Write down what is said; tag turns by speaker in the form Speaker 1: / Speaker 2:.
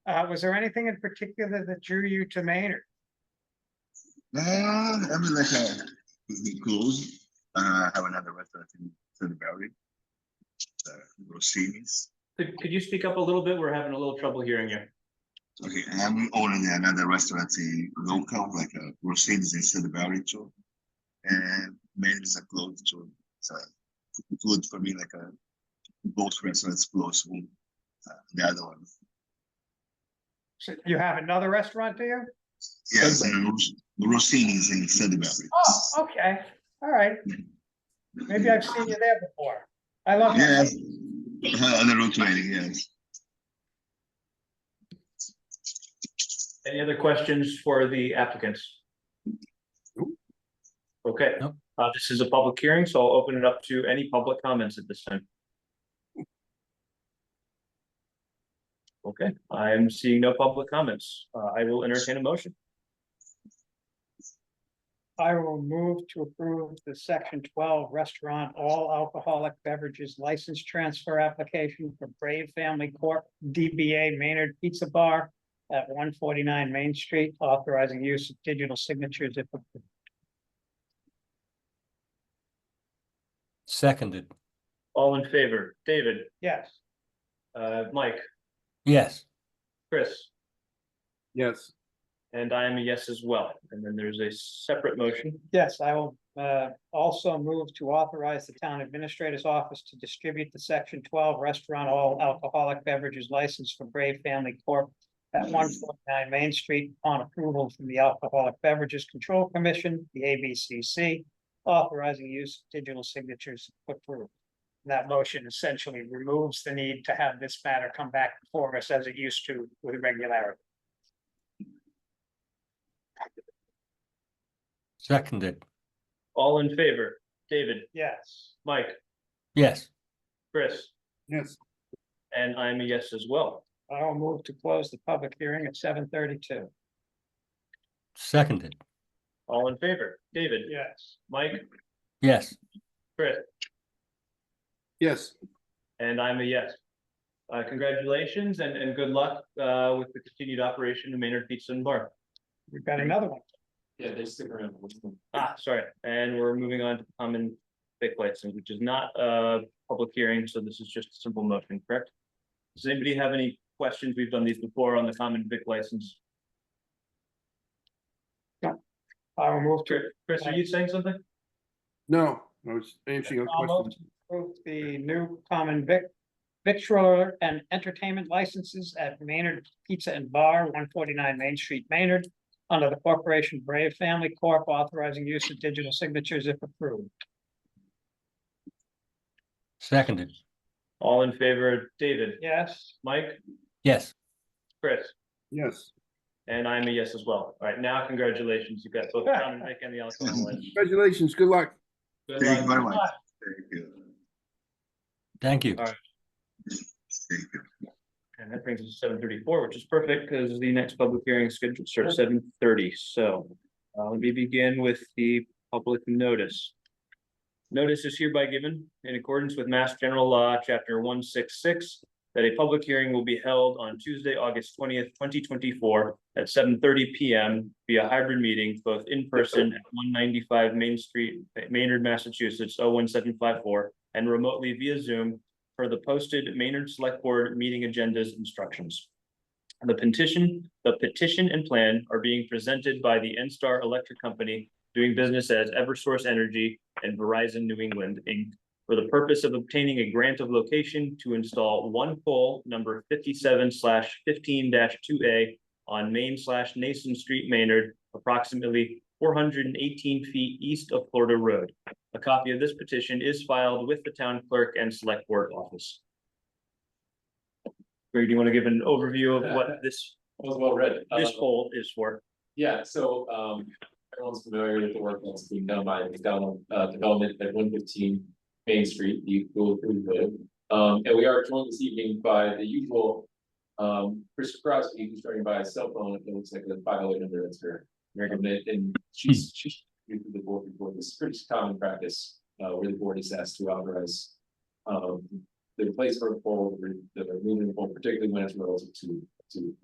Speaker 1: Uh, was there anything in particular that drew you to Maynard?
Speaker 2: Uh, I mean, like, uh, the goals, uh, have another restaurant in Thunder Valley. Uh, Rossini's.
Speaker 3: Could, could you speak up a little bit? We're having a little trouble hearing you.
Speaker 2: Okay, and I'm owning another restaurant in local, like, uh, Rossini's in Thunder Valley too. And men's are closed too, so good for me, like, uh, both restaurants close, one, uh, the other one.
Speaker 1: So You have another restaurant, do you?
Speaker 2: Yes, and Ros- Rossini's in Thunder Valley.
Speaker 1: Oh, okay, all right, maybe I've seen you there before. I love that.
Speaker 2: Yes, Uh, on the road to Eddie, yes.
Speaker 3: Any other questions for the applicants? Okay,
Speaker 4: Nope.
Speaker 3: uh, this is a public hearing, so I'll open it up to any public comments at this time. Okay, I'm seeing no public comments. Uh, I will entertain a motion.
Speaker 1: I will move to approve the section twelve restaurant all alcoholic beverages license transfer application for Brave Family Corp. DBA Maynard Pizza Bar at one forty-nine Main Street, authorizing use of digital signatures if approved.
Speaker 4: Seconded,
Speaker 3: All in favor, David,
Speaker 1: Yes,
Speaker 3: uh, Mike,
Speaker 4: yes,
Speaker 3: Chris,
Speaker 5: yes,
Speaker 3: and I am a yes as well. And then there's a separate motion.
Speaker 1: yes, I will uh also move to authorize the town administrator's office to distribute the section twelve restaurant all alcoholic beverages license for Brave Family Corp. At one forty-nine Main Street upon approval from the Alcoholic Beverages Control Commission, the ABCC. Authorizing use of digital signatures if approved. That motion essentially removes the need to have this matter come back before us as it used to with regularity.
Speaker 4: seconded,
Speaker 3: All in favor, David,
Speaker 1: Yes,
Speaker 3: Mike,
Speaker 4: yes,
Speaker 3: Chris,
Speaker 5: yes,
Speaker 3: and I am a yes as well.
Speaker 1: I will move to close the public hearing at seven thirty-two.
Speaker 4: seconded,
Speaker 3: All in favor, David,
Speaker 1: Yes.
Speaker 3: Mike,
Speaker 4: yes,
Speaker 3: Chris,
Speaker 5: yes.
Speaker 3: and I'm a yes. Uh, congratulations and, and good luck, uh, with the continued operation of Maynard Pizza and Bar.
Speaker 1: We've got another one.
Speaker 3: Yeah, they stick around. Ah, sorry, and we're moving on to common vic license, which is not a public hearing, so this is just a simple motion, correct? Does anybody have any questions? We've done these before on the common vic license.
Speaker 1: I will move to,
Speaker 3: Chris, are you saying something?
Speaker 5: No, I was answering a
Speaker 1: I'll move
Speaker 5: question.
Speaker 1: to approve the new common vic. Victualler and entertainment licenses at Maynard Pizza and Bar, one forty-nine Main Street, Maynard. Under the corporation Brave Family Corp authorizing use of digital signatures if approved.
Speaker 4: seconded,
Speaker 3: All in favor, David,
Speaker 1: Yes,
Speaker 3: Mike,
Speaker 4: yes,
Speaker 3: Chris?
Speaker 5: Yes,
Speaker 3: And I'm a yes as well. All right, now congratulations. You've got both John and Nick and the alcohol. license.
Speaker 5: congratulations, good luck.
Speaker 3: Good
Speaker 2: Thank you very
Speaker 3: luck.
Speaker 2: much. Thank you.
Speaker 4: thank you.
Speaker 3: All right.
Speaker 2: Thank you.
Speaker 3: And that brings us to seven thirty-four, which is perfect because the next public hearing is scheduled for seven thirty. So uh, let me begin with the public notice. Notice is hereby given in accordance with Mass General Law, Chapter one six six, that a public hearing will be held on Tuesday, August twentieth, twenty twenty-four at seven thirty P M via hybrid meeting, both in person at one ninety-five Main Street, Maynard, Massachusetts, 01754, and remotely via Zoom for the posted Maynard Select Board meeting agendas instructions. The petition, the petition and plan are being presented by the Enstar Electric Company doing business as Eversource Energy and Verizon New England Inc. For the purpose of obtaining a grant of location to install one pole number fifty-seven slash fifteen two A on Main slash Nason Street, Maynard, approximately four hundred and eighteen feet east of Florida Road. A copy of this petition is filed with the town clerk and select board office. Greg, do you want to give an overview of what this,
Speaker 6: That was Uh, well read.
Speaker 3: this
Speaker 6: Uh,
Speaker 3: poll is for?
Speaker 6: Yeah, so um everyone's familiar with the work that's being done by McDonald uh development at one fifteen Main Street, the Google Food Road. Um and we are joined this evening by the usual um Chris Crosby, who's joined by a cell phone, it looks like the five oh eight number that's her. recommend and she's she's with the board before this is pretty common practice uh where the board is asked to authorize um the replacement of pole, the removal of pole, particularly when it's relative to to